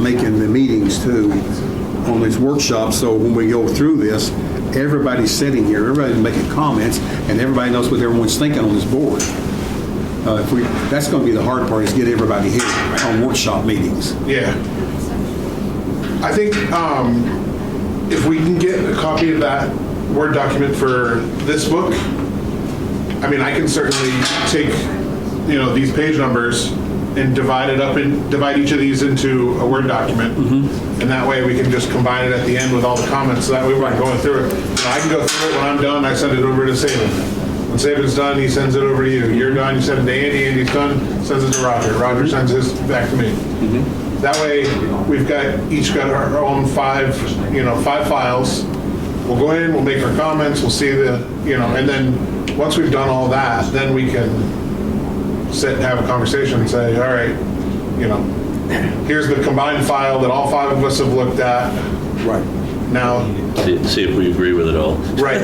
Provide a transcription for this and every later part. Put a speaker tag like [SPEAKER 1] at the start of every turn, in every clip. [SPEAKER 1] making the meetings too, on these workshops, so when we go through this, everybody's sitting here, everybody's making comments, and everybody knows what everyone's thinking on this board. Uh, if we, that's gonna be the hard part, is get everybody here on workshop meetings.
[SPEAKER 2] Yeah. I think um, if we can get a copy of that Word document for this book, I mean, I can certainly take, you know, these page numbers and divide it up and divide each of these into a Word document. And that way we can just combine it at the end with all the comments. So that way we're not going through it. You know, I can go through it when I'm done, I send it over to Saban. When Saban's done, he sends it over to you. You're done, you send it to Andy, Andy's done, sends it to Roger. Roger sends his back to me. That way, we've got, each got our own five, you know, five files we'll go in, we'll make our comments, we'll see the, you know, and then, once we've done all that, then we can sit and have a conversation and say, all right, you know, here's the combined file that all five of us have looked at.
[SPEAKER 1] Right.
[SPEAKER 2] Now,
[SPEAKER 3] See see if we agree with it all.
[SPEAKER 2] right,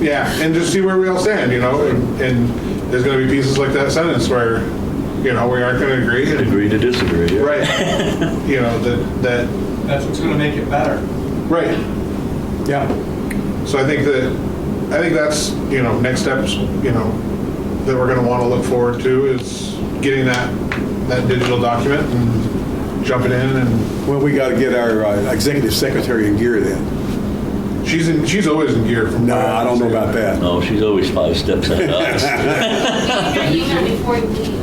[SPEAKER 2] yeah, and just see where we all stand, you know, and and there's gonna be pieces like that sentence where, you know, we aren't gonna agree. and-
[SPEAKER 3] Agree to disagree. yeah.
[SPEAKER 2] Right, you know, that, that
[SPEAKER 4] That's what's going to make it better.
[SPEAKER 2] Right. Yeah. So I think that, I think that's, you know, next steps, you know, that we're gonna wanna look forward to is getting that, that digital document and jumping in and,
[SPEAKER 1] Well, we gotta get our uh, executive secretary in gear then.
[SPEAKER 2] she's in, she's always in gear from.
[SPEAKER 1] No, I don't know about that.
[SPEAKER 3] No, she's always five steps ahead of us.
[SPEAKER 5] You know, before you leave.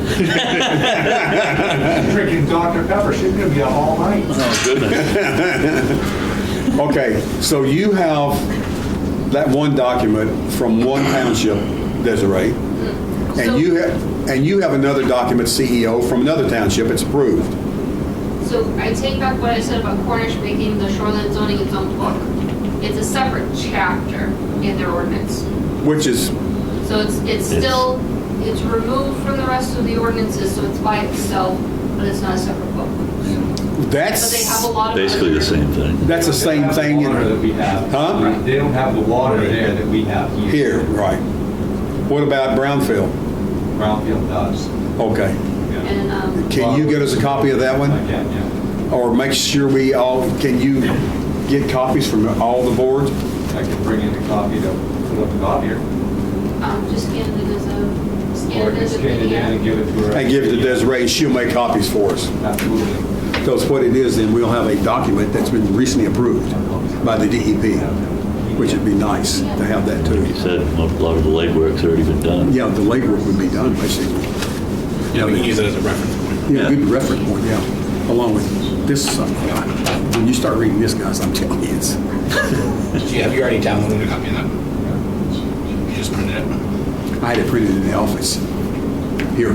[SPEAKER 4] Drinking Dr. Pepper, she's going to be up all night.
[SPEAKER 3] Oh, goodness.
[SPEAKER 1] Okay, so you have that one document from one township, Desiree,
[SPEAKER 5] So-
[SPEAKER 1] and you have, and you have another document, CEO, from another township, it's approved.
[SPEAKER 5] So I take back what I said about Cornish making the shoreline zoning its own book. It's a separate chapter in their ordinance.
[SPEAKER 1] Which is,
[SPEAKER 5] So it's, it's
[SPEAKER 3] It's-
[SPEAKER 5] still, it's removed from the rest of the ordinances, so it's by itself, but it's not a separate book. But they have
[SPEAKER 1] that's,
[SPEAKER 5] a lot of.
[SPEAKER 3] Basically the same thing.
[SPEAKER 1] that's the same thing
[SPEAKER 4] They don't have
[SPEAKER 1] in
[SPEAKER 4] the water that we have.
[SPEAKER 1] Huh?
[SPEAKER 4] They don't have the water there that we have here.
[SPEAKER 1] here, right? What about Brownfield?
[SPEAKER 4] Brownfield does.
[SPEAKER 1] Okay,
[SPEAKER 4] Yeah.
[SPEAKER 5] And, um,
[SPEAKER 1] can you get us a copy of that one?
[SPEAKER 4] Again, yeah.
[SPEAKER 1] Or make sure we all, can you get copies from all the boards?
[SPEAKER 4] I can bring in a copy to put up the copier.
[SPEAKER 5] um, just scan it as a,
[SPEAKER 4] Or
[SPEAKER 5] scan
[SPEAKER 4] I
[SPEAKER 5] it
[SPEAKER 4] can
[SPEAKER 5] as a
[SPEAKER 4] scan it in and
[SPEAKER 5] PDF.
[SPEAKER 4] give it to her.
[SPEAKER 1] And give it to Desiree, and she'll make copies for us.
[SPEAKER 4] Absolutely.
[SPEAKER 1] Because what it is, then we'll have a document that's been recently approved by the DEP, which would be nice to have that
[SPEAKER 3] You
[SPEAKER 1] too.
[SPEAKER 3] said a lot of the legwork's already been done.
[SPEAKER 1] Yeah, the legwork would be done, basically.
[SPEAKER 6] Yeah, we can use it as a reference point.
[SPEAKER 1] Yeah, good reference point, yeah, along with this, uh, when you start reading this, guys, I'm telling you, it's,
[SPEAKER 6] Do you, have you already downloaded a copy of that? You just printed it?
[SPEAKER 1] I had it printed in the office. Here.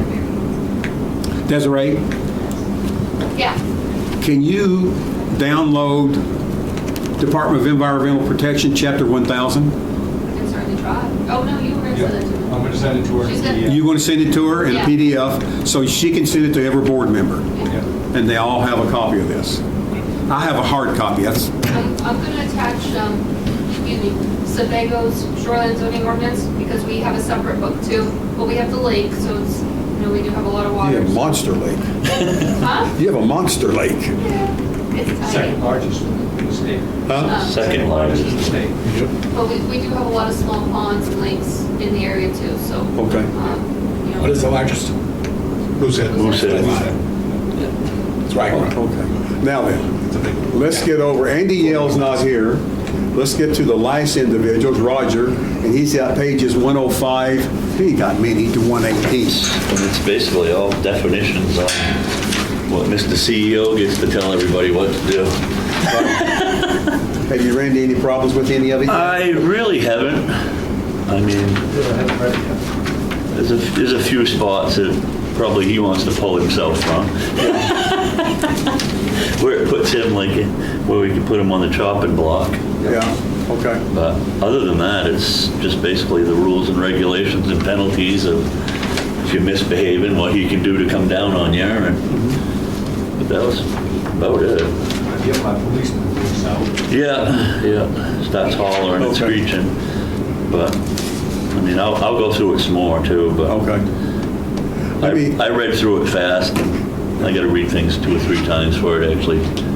[SPEAKER 1] Desiree,
[SPEAKER 5] Yeah.
[SPEAKER 1] can you download Department of Environmental Protection, Chapter 1000?
[SPEAKER 5] I can certainly try. Oh, no, you were gonna
[SPEAKER 4] Yeah.
[SPEAKER 5] send it to me.
[SPEAKER 4] I'm going to send it to her.
[SPEAKER 5] She's got-
[SPEAKER 4] Yeah.
[SPEAKER 1] You're going to send it to her in a
[SPEAKER 5] Yeah.
[SPEAKER 1] PDF, so she can send it to every board member?
[SPEAKER 4] Oh, Yeah.
[SPEAKER 1] and they all have a copy of this. I have a hard copy. That's,
[SPEAKER 5] I'm, I'm gonna attach, um, excuse me, Sebago's shoreline zoning ordinance, because we have a separate book too, but we have the lake, so it's, you know, we do have a lot of
[SPEAKER 1] you
[SPEAKER 5] water.
[SPEAKER 1] have Monster Lake.
[SPEAKER 5] Huh?
[SPEAKER 1] You have a Monster Lake.
[SPEAKER 5] Yeah, It's
[SPEAKER 4] Second
[SPEAKER 5] tiny,
[SPEAKER 4] largest in the state.
[SPEAKER 1] Huh?
[SPEAKER 3] Second
[SPEAKER 4] in the
[SPEAKER 3] largest.
[SPEAKER 4] state.
[SPEAKER 5] but we, we do have a lot of small ponds and lakes in the area too, so.
[SPEAKER 1] Okay.
[SPEAKER 5] um, you know,
[SPEAKER 6] What is the largest?
[SPEAKER 2] Who's it?
[SPEAKER 3] Moosehead.
[SPEAKER 6] It's Rhinecroft.
[SPEAKER 1] Oh, Okay. Now then, let's get over, Andy Yale's not here. Let's get to the last individuals, Roger, and he's got pages 105, he got many to 118.
[SPEAKER 3] And it's basically all definitions on what Mr. CEO gets to tell everybody what to do.
[SPEAKER 1] Have you ran into any problems with any of it? yet?
[SPEAKER 3] I really haven't. I mean, there's a, there's a few spots that probably he wants to pull himself from. Where it puts him like, where we could put him on the chopping block.
[SPEAKER 1] Yeah, okay.
[SPEAKER 3] But other than that, it's just basically the rules and regulations and penalties of if you misbehave and what he can do to come down on you and, but that was about it.
[SPEAKER 4] I get my policeman boots out.
[SPEAKER 3] Yeah, yeah, starts hollering and
[SPEAKER 1] Okay.
[SPEAKER 3] screeching. But, I mean, I'll, I'll go through it some more too, but.
[SPEAKER 1] Okay.
[SPEAKER 3] I
[SPEAKER 1] I mean-
[SPEAKER 3] I read through it fast. and I gotta read things two or three times for it, actually.